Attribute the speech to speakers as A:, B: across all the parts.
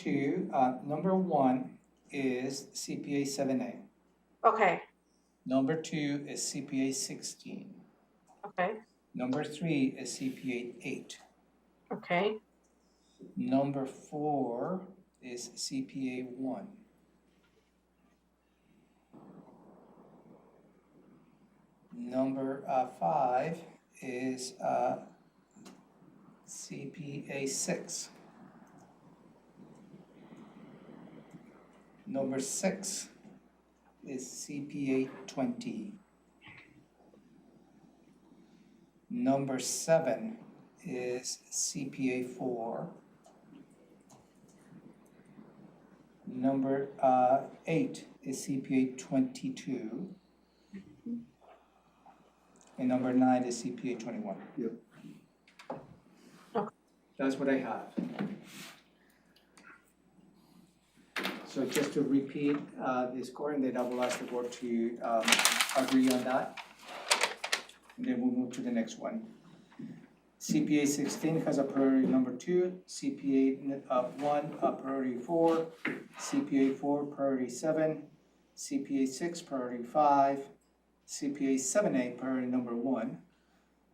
A: Two, uh, number one is CPA seven A.
B: Okay,
A: Number two is CPA sixteen.
B: okay,
A: Number three is CPA eight.
B: okay,
A: Number four is CPA one. Number uh, five is uh, CPA six. Number six is CPA twenty. Number seven is CPA four. Number uh eight is CPA twenty-two. And number nine is CPA twenty-one.
C: Yep.
B: Okay.
A: That's what I have. So just to repeat uh the scoring, then I will ask the board to um agree on that. And then we'll move to the next one. CPA sixteen has a priority number two, CPA uh one, uh priority four, CPA four, priority seven, CPA six, priority five, CPA seven A, priority number one,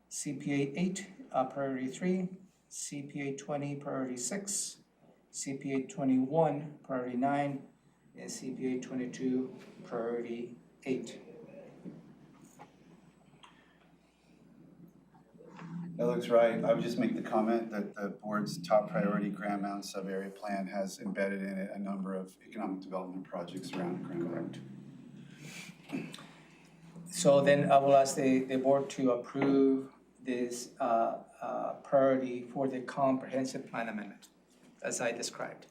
A: CPA eight, uh priority three, CPA twenty, priority six, CPA twenty-one, priority nine, and CPA twenty-two, priority eight.
C: That looks right. I would just make the comment that the board's top priority Grand Mountain sub-area plan has embedded in it a number of economic development projects around Grand Mountain.
A: So then I will ask the, the board to approve this uh, uh, priority for the comprehensive plan amendment, as I described.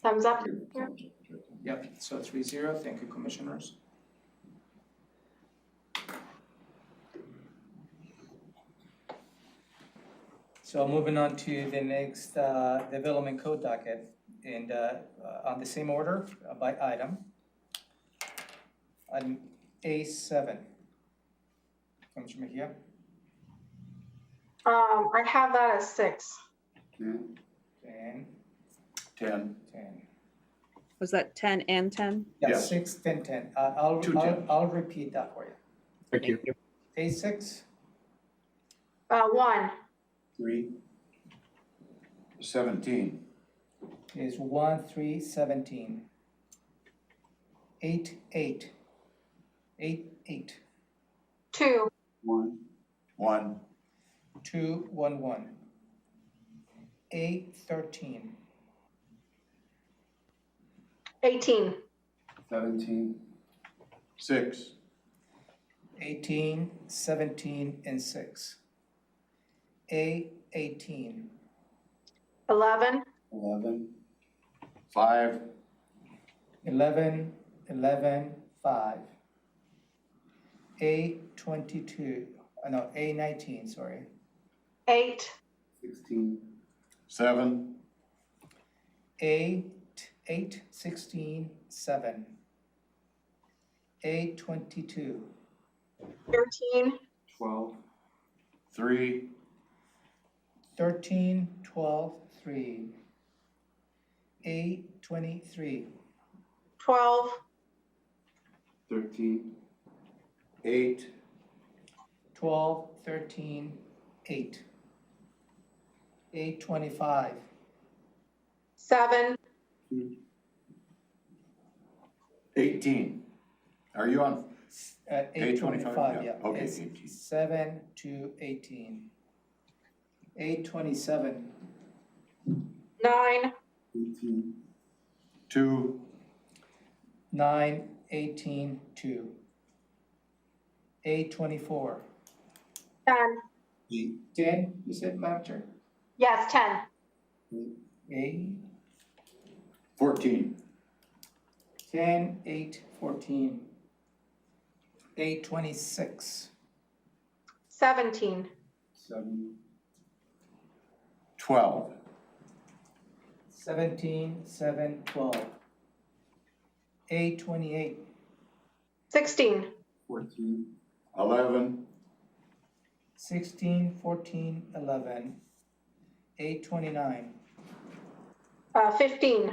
B: thumbs up,
A: Yep, so three zero, thank you, commissioners. So moving on to the next uh, development code docket, and uh, uh, on the same order uh, by item. Item A seven. Commissioner Mejia?
B: um, I have that as six,
C: Yeah,
A: Ten,
C: ten.
A: ten.
D: Was that 10 and 10?
A: Yeah,
C: Yes.
A: six, ten, ten. Uh, I'll,
C: Two
A: I'll,
C: ten.
A: I'll repeat that for you.
E: Thank you.
A: A six,
B: uh, one,
C: Three. Seventeen.
A: is one, three, seventeen. Eight, eight. Eight, eight.
B: two,
C: One. One.
A: Two, one, one. Eight, thirteen.
B: eighteen,
C: Seventeen. Six.
A: Eighteen, seventeen, and six. A, eighteen.
B: eleven,
C: Eleven. Five.
A: Eleven, eleven, five. A, twenty-two, uh, no, A nineteen, sorry.
B: eight,
C: Sixteen. Seven.
A: eight, eight, sixteen, seven. Eight, twenty-two,
B: thirteen,
C: Twelve. Three.
A: thirteen, twelve, three. Eight, twenty-three,
B: twelve,
C: Thirteen. Eight.
A: twelve, thirteen, eight. Eight, twenty-five,
B: seven,
C: Eighteen. Are you on?
A: uh, eight, twenty-five, yeah.
C: Okay,
A: It's
C: 18.
A: Seven to eighteen. Eight, twenty-seven,
B: nine,
C: Eighteen. Two.
A: nine, eighteen, two. Eight, twenty-four.
B: ten,
C: Eight.
A: Ten, you said, Madam Chair?
B: yes, ten,
A: A,
C: Fourteen.
A: ten, eight, fourteen. Eight, twenty-six,
B: seventeen,
C: Seven. Twelve.
A: seventeen, seven, twelve. Eight, twenty-eight,
B: sixteen,
C: Fourteen. Eleven.
A: sixteen, fourteen, eleven. Eight, twenty-nine,
B: uh, fifteen.